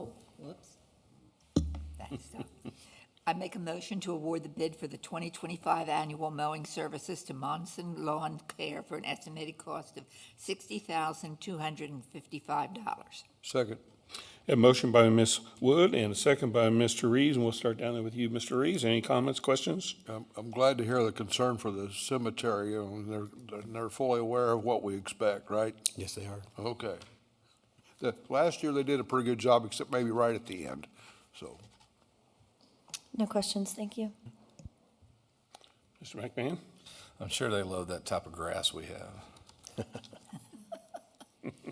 Oh, Whoops. That stuff. I make a motion to award the bid for the 2025 annual mowing services to Monson Lawn Care for an estimated cost of $60,255. Second. A motion by Ms. Wood and a second by Mr. Reeves, and we'll start down there with you, Mr. Reeves. Any comments, questions? I'm, I'm glad to hear the concern for the cemetery, and they're, they're fully aware of what we expect, right? Yes, they are. Okay. The, last year, they did a pretty good job, except maybe right at the end, so. No questions, thank you. Mr. McMahon? I'm sure they love that type of grass we have.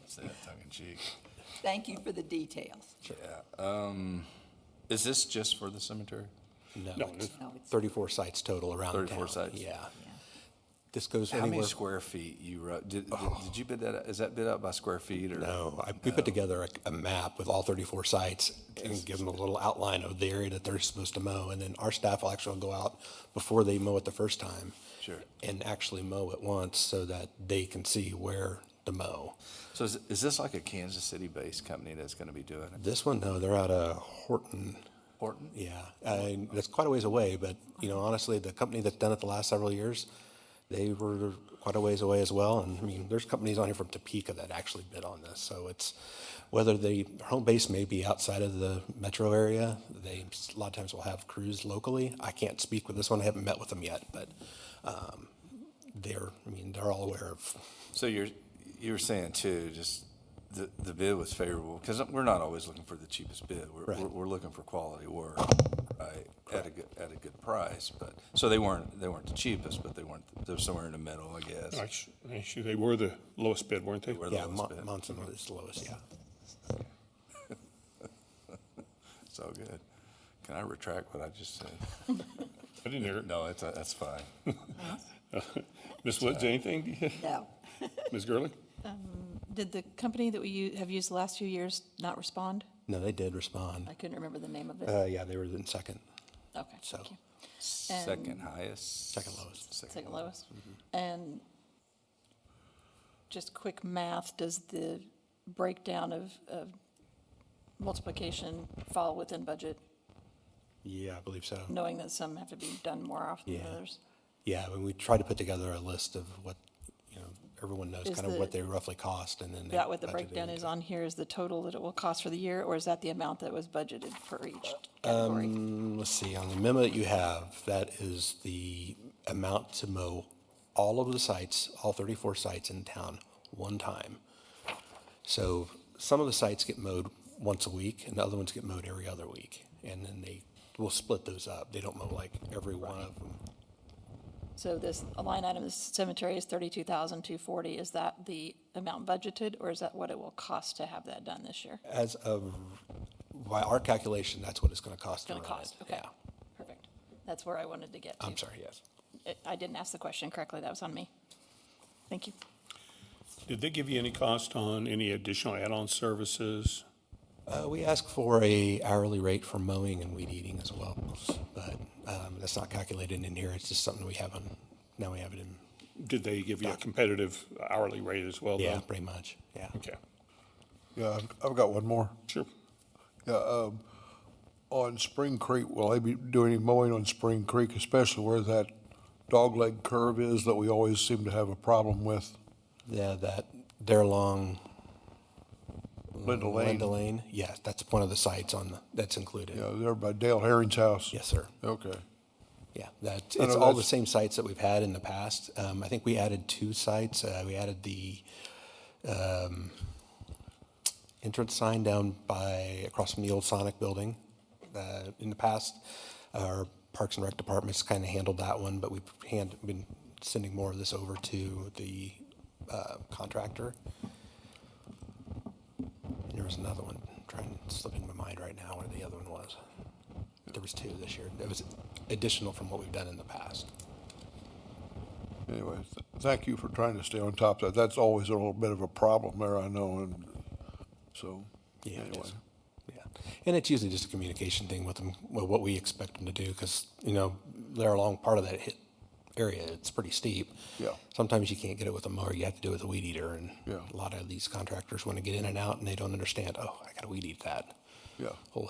Say that tongue in cheek. Thank you for the details. Yeah. Um, is this just for the cemetery? No. it's No, it's- Thirty-four sites total around the 34 town. sites. Yeah. This goes How many anywhere. square feet you wrote? Did, did, did you bid that? out- Is that bid out by square feet or? No, I, we put together a, a map with all thirty-four sites and give them a little outline of the area that they're supposed to mow. And then our staff will actually go out before they mow it the first time. Sure. And actually mow it once so that they can see where to mow. So is, is this like a Kansas City based company that's going to be doing it? This one, though, they're out of Horton. Horton? Yeah, and that's quite a ways away, but, you know, honestly, the company that's done it the last several years, they were quite a ways away as well, and I mean, there's companies on here from Topeka that actually bid on this, so it's, whether the home base may be outside of the metro area, they, a lot of times will have crews locally. I can't speak with this one, I haven't met with them yet, but, um, they're, I mean, they're all aware of, So you're, you were saying too, just the, the bid was favorable, because we're not always looking for the cheapest bid. We're, Right. we're, we're looking for quality work, right, at a good, at a good price, but, so they weren't, they weren't the cheapest, but they weren't, they were somewhere in the middle, I guess. Actu- Actually, they were the lowest bid, weren't they? Were the yeah, lowest Mon- bid. Monson is the lowest, yeah. So good. Can I retract what I just said? I didn't hear it. No, it's, that's fine. Ms. Woods, anything? No, Ms. Gurley? Did the company that we u- have used the last few years not respond? No, they did respond. I couldn't remember the name of it. Uh, yeah, they were in second, Okay, so, thank you. Second highest? second lowest. Second lowest. Mm-hmm. And just quick math, does the breakdown of, of multiplication fall within budget, Yeah, I believe so. knowing that some have to be done more often than Yeah. others? Yeah, when we try to put together a list of what, you know, everyone knows Is kind of what the- they roughly cost and then. Is they that what the budget it breakdown is into- on here, is the total that it will cost for the year, or is that the amount that was budgeted for each Um, category? Mm, Let's see, on the memo that you have, that is the amount to mow all of the sites, all 34 sites in town, one time. So some of the sites get mowed once a week and the other ones get mowed every other week. And then they will split those up. They don't mow like every one of them. So this line item, this cemetery is thirty-two thousand two forty, is that the amount budgeted, or is that what it will cost to have that done this year? As of, by our calculation, that's what it's going to cost to Gonna run it. cost, okay, Yeah. Um, perfect. That's where I wanted to get to. I'm sorry, yes. I- I didn't ask the question correctly, that was on me. Thank you. Did they give you any cost on any additional add-on services? Uh, We ask for a hourly rate for mowing and weed eating as well, but um, that's not calculated in here. It's just something we have on, now we have it in, Did they give you a competitive hourly rate as well? though? yeah, pretty much, yeah. Okay, Yeah, I've- I've got one more. sure. Yeah, um, on Spring Creek, will they be doing any mowing on Spring Creek, especially where that dogleg curve is that we always seem to have a problem with? Yeah, that, they're along Mm, Linda Lane, Linda Lane, yeah, that's one of the sites on, the that's included. yeah, there by Dale Herring's house? Yes, sir. Okay. Yeah, that, I it's know all the that's- same sites that we've had in the past. Um, I think we added two sites. Uh, we added the, um, entrance sign down by, across from the old Sonic building. Uh, in the past, our Parks and Rec department's kind of handled that one, but we've hand, been sending more of this over to the, uh, contractor. There was another one, trying, slipping my mind right now where the other one was. There was two this year. It was additional from what we've done in the past. Anyway, th- thank you for trying to stay on top of that. That's always a little bit of a problem there, I know, and so, Yeah, it anyway. is. Yeah, and it's usually just a communication thing with them, well, what we expect them to do, because, you know, they're along part of that hit area, it's pretty steep. Yeah. Sometimes you can't get it with a mower, you have to do it with a weed eater, and Yeah. a lot of these contractors want to get in and out, and they don't understand, oh, I gotta weed eat that. Yeah. Well,